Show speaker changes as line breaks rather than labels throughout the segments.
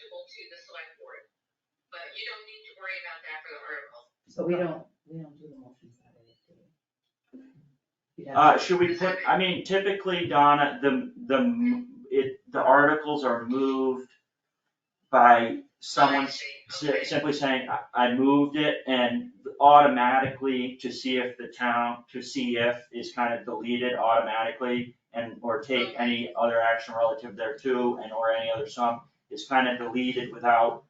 to the select board. But you don't need to worry about that for the article.
But we don't, we don't do the motions that way, do we? You'd have-
Uh, should we put, I mean, typically, Donna, the, the, m- it, the articles are moved by someone
I see.
si-
Okay.
simply saying, "I- I moved it, and automatically to see if the town, to see if is kind of deleted automatically, and, or take any other action relative thereto, and or any other sum, is kind of deleted without,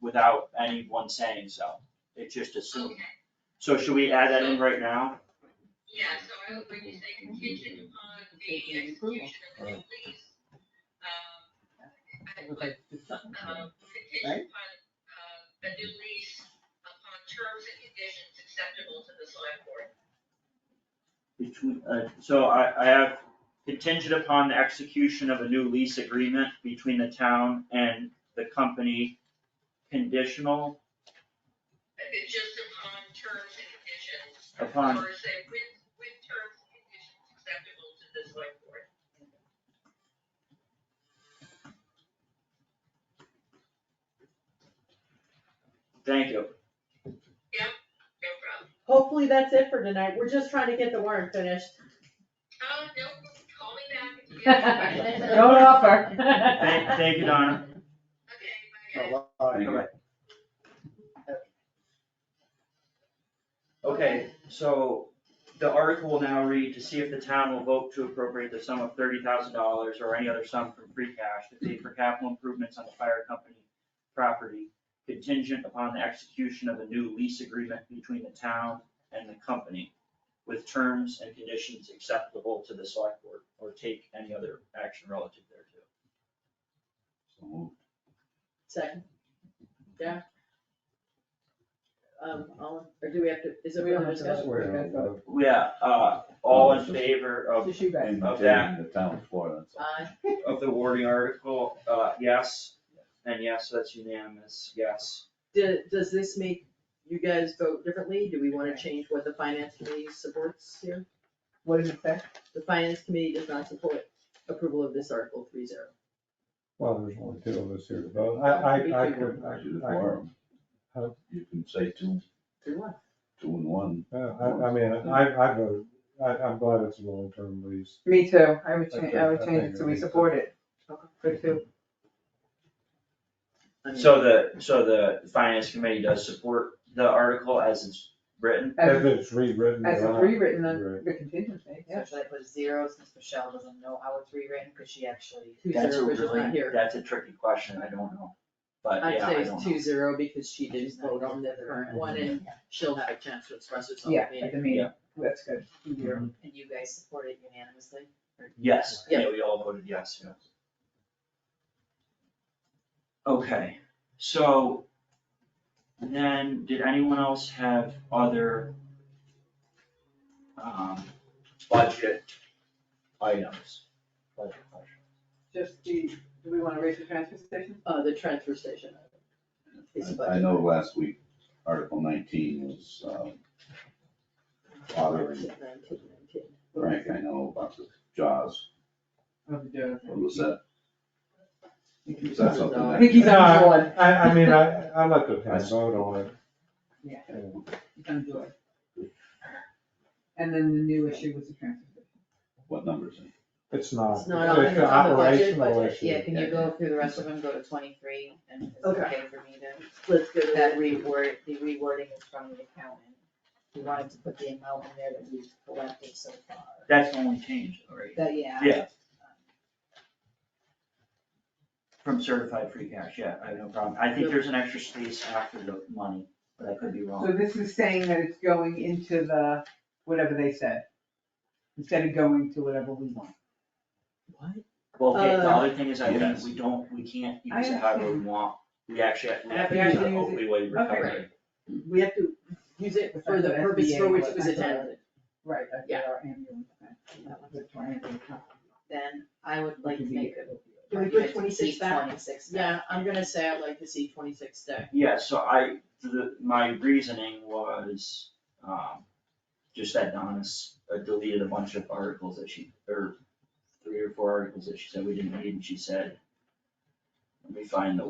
without anyone saying so. It's just assumed.
Okay.
So should we add that in right now?
Yeah, so I would, when you say contingent upon the
Taking approval.
execution of the lease, um, I
It
would
was like the second one.
um,
Right?
contingent upon, uh, a new lease upon terms and conditions acceptable to the select board.
Between, uh, so I, I have contingent upon the execution of a new lease agreement between the town and the company conditional
Uh, It's just upon terms and conditions.
upon,
Or say with, with terms and conditions acceptable to the select board.
thank you.
No problem.
Hopefully that's it for tonight, we're just trying to get the warrant finished.
Oh, no, call me back. if you have any questions.
Don't offer.
Thank, thank you, Donna.
Okay, bye guys.
Bye-bye.
Okay, so the article will now read to see if the town will vote to appropriate the sum of thirty thousand dollars or any other sum from free cash to pay for capital improvements on the fire company property contingent upon the execution of a new lease agreement between the town and the company with terms and conditions acceptable to the select board or take any other action relative thereto.
So moved.
Second. Yeah. Um, all, or do we have to, is it
We don't
further
have to vote.
discussion?
We're gonna vote.
Yeah, uh, all in favor of
Just you guys.
And
Of
maintaining the town floor, that's all.
Aye.
of the warning article, uh, yes, and yes, that's unanimous, yes.
Do- does this make you guys vote differently? Do we wanna change what the finance committee supports here?
What does it say?
The finance committee does not support approval of this article three zero.
Well, there's only two of us here to vote. I, I, I
We
could, I,
You do the
I,
quorum.
Huh?
You can say two,
Three one.
two and one.
uh, I, I mean, I, I vote, I, I'm glad it's a long-term lease.
Me too, I would
I
change,
think-
I would
I
change
think
it, so
it
we
needs to-
support it.
Okay.
For two,
I mean,
So the, so the finance committee does support the article as it's written?
If
as,
it's rewritten.
Uh,
as
or
it's
not.
rewritten on
Right.
the contingency, yeah.
Especially I put zero since Michelle doesn't know how it's rewritten, cause she actually.
Two
That's a
zero, which is
really-
not here.
That's a tricky question, I don't know, but
I'd
yeah,
say
I
it's
don't know.
two zero because she didn't vote on the current one and she'll have a chance to express herself.
Yeah,
maybe.
at the meeting, that's good.
Mhm.
And you guys support it unanimously?
Yes,
Yeah.
yeah, we all voted yes, yes. Okay, so then, did anyone else have other um, budget items? Budget questions?
Just the, do we wanna raise the transfer station?
Uh, the transfer station. is a
I- I
budget.
know last week, Article nineteen was, um, bothering
Nineteen, nineteen.
Frank, I know about the jaws.
Of the-
What was that? Is that something
I
that?
think he's
No,
on board,
I, I mean, I, I let the town vote on it.
yeah,
Yeah.
he's on board. And then the new issue was the transfer station.
What numbers?
It's not,
It's
it's
not on-
an
it's on the budget,
operational
budget,
issue.
Yeah, can you go through the rest of them, go to twenty-three, and it's
Okay.
okay for me to,
Let's go to
that
that.
reword, the rewording is from the accountant. We wanted to put the amount in there that we've collected so far,
That's the only change, right?
that, yeah.
Yeah. From certified free cash, yeah, I have no problem. I think there's an extra space after the money, but I could be
So
wrong.
this is saying that it's going into the, whatever they said, instead of going to whatever we want.
What?
Well, okay, the
Uh,
other thing is I think
Yes.
we don't, we can't
I
use it however we want. We actually, we have to
Yeah,
use
we
the
have to use
opioid
Okay.
recovery.
We have to use it for the purpose for which it was intended.
Right, that's
Yeah.
our ambulance. plan. That's our ambulance plan.
Then I would like to make a.
Can we put 26 back?
Twenty-six
Yeah, I'm gonna say I'd like to see twenty-six day.
Yeah, so I, the, my reasoning was, um, just that Donna's uh, deleted a bunch of articles that she, or three or four articles that she said we didn't need, and she said, let me find the